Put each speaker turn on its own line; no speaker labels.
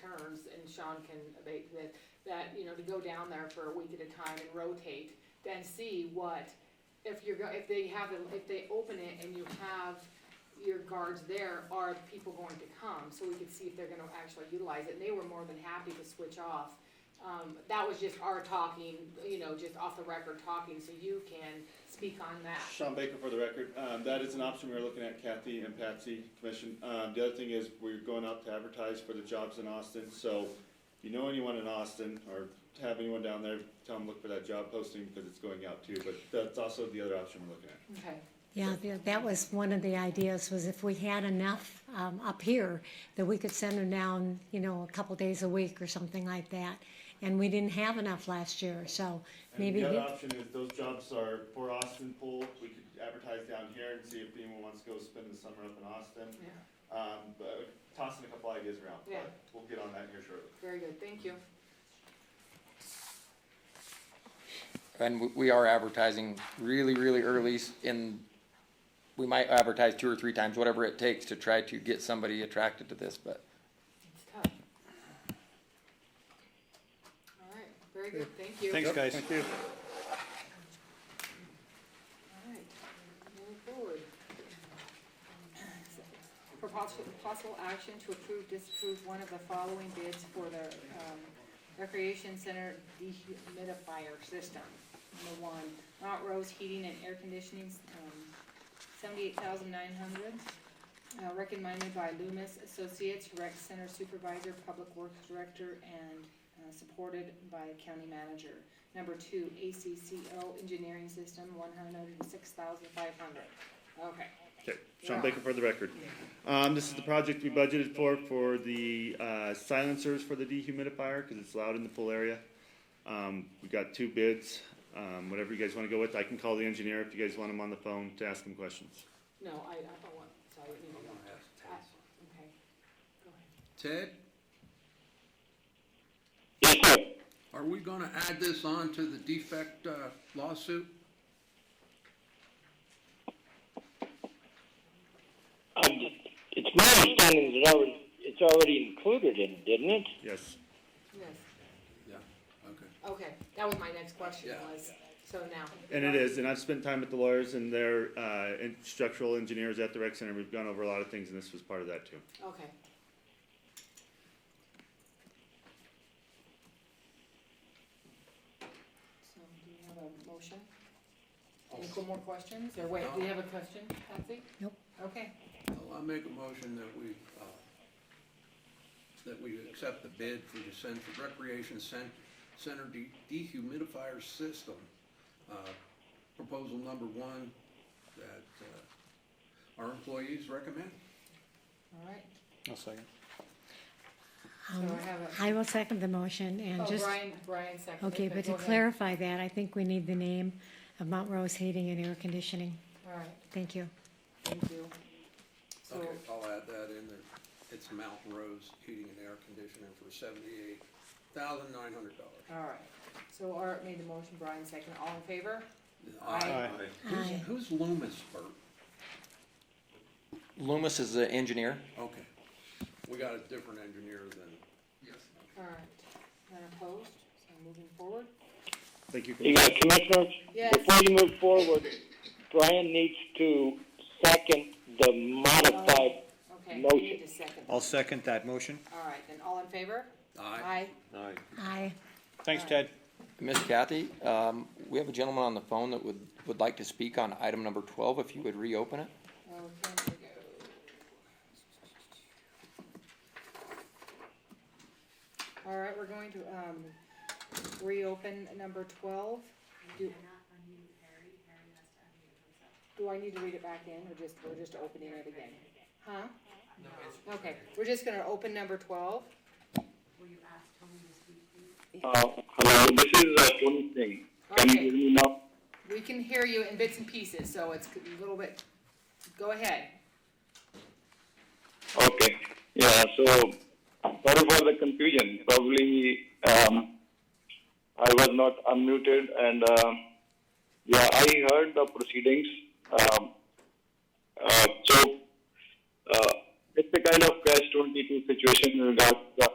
terms, and Sean can abate this, that, you know, to go down there for a week at a time and rotate, then see what, if you're, go- if they have, it- if they open it and you have your guards there, are people going to come? So we could see if they're gonna actually utilize it, and they were more than happy to switch off. Um, that was just our talking, you know, just off the record talking, so you can speak on that.
Sean Baker for the record. Um, that is an option we're looking at, Kathy and Patsy Commission. Um, the other thing is we're going out to advertise for the jobs in Austin, so if you know anyone in Austin or have anyone down there, tell them look for that job posting because it's going out too, but that's also the other option we're looking at.
Okay.
Yeah, th- that was one of the ideas, was if we had enough um, up here, that we could send them down, you know, a couple days a week or something like that. And we didn't have enough last year, so
And
maybe,
the other
he-
option is those jobs are for Austin pool. We could advertise down here and see if anyone wants to go spend the summer up in Austin.
Yeah,
Um, but tossing a couple ideas around,
Yeah.
but we'll get on that here shortly.
very good, thank you.
And we- we are advertising really, really early s- in, we might advertise two or three times, whatever it takes to try to get somebody attracted to this, but
It's tough. All right, very good, thank you.
Thanks, guys.
All right, moving forward. For possible, possible action to approve, disapprove one of the following bids for the, um, recreation center dehumidifier system. Number one, Mount Rose Heating and Air Conditioning, um, seventy-eight thousand nine hundred. Uh, recommended by Loomis Associates, rec center supervisor, public works director, and, uh, supported by county manager. Number two, ACCO Engineering System, one hundred and six thousand five hundred. Okay,
Okay, Sean Baker for the record. Um, this is the project we budgeted for, for the, uh, silencers for the dehumidifier, cause it's loud in the pool area. Um, we got two bids, um, whatever you guys wanna go with, I can call the engineer if you guys want him on the phone to ask him questions.
no, I, I don't want, so I didn't even want to. I- Okay, go ahead.
Ted,
Yes, sir.
are we gonna add this on to the defect uh, lawsuit?
Um, It's my understanding that it already, it's already included in, it, didn't it?
Yes,
Yes,
Yeah. Okay.
okay, that was my next question
Yeah.
was, so now.
and it is, and I've spent time with the lawyers and their, uh, and structural engineers at the rec center, we've gone over a lot of things and this was part of that too.
Okay. So, do we have a motion? Any co- more questions, or wait, do you have a question, Patsy?
Nope.
Okay,
Well, I make a motion that we, uh, that we accept the bid for the Center, Recreation Cen- Center de- dehumidifier system. uh, Proposal number one that uh, our employees recommend.
all right,
I'll second.
so I have a,
I will second the motion and
oh,
Um, just,
Brian, Brian seconded.
okay, but to
go ahead.
clarify that, I think we need the name of Mount Rose Heating and Air Conditioning.
All right,
Thank you.
thank you. So,
Okay, I'll add that in there. It's Mount Rose Heating and Air Conditioning for seventy-eight thousand nine hundred dollars.
all right, so Art made the motion, Brian seconded, all in favor?
Aye.
Aye.
Who's, who's Loomis, Bert?
Loomis is the engineer.
Okay. We got a different engineer than.
All right, none opposed, so moving forward?
Thank you.
You got commissioners?
Yes.
Before you move forward, Brian needs to second the modified,
Okay, you need to second.
I'll second that motion.
All right, then all in favor?
Aye.
Aye.
Aye.
Thanks, Ted.
Miss Kathy, um, we have a gentleman on the phone that would, would like to speak on item number twelve, if you would reopen it.
Okay, there we go. All right, we're going to, um, reopen number twelve. Do Do I need to read it back in, or just, we're just opening it again? Huh? Okay, we're just gonna open number twelve.
uh, hello, this is uh, Tony Singh. Can you
Okay.
hear me now?
We can hear you in bits and pieces, so it's a little bit, go ahead.
Okay, yeah, so, sorry for the confusion, probably, um, I was not unmuted and, uh, yeah, I heard the proceedings, um, uh, so, uh, it's a kind of catch twenty-two situation in regards to the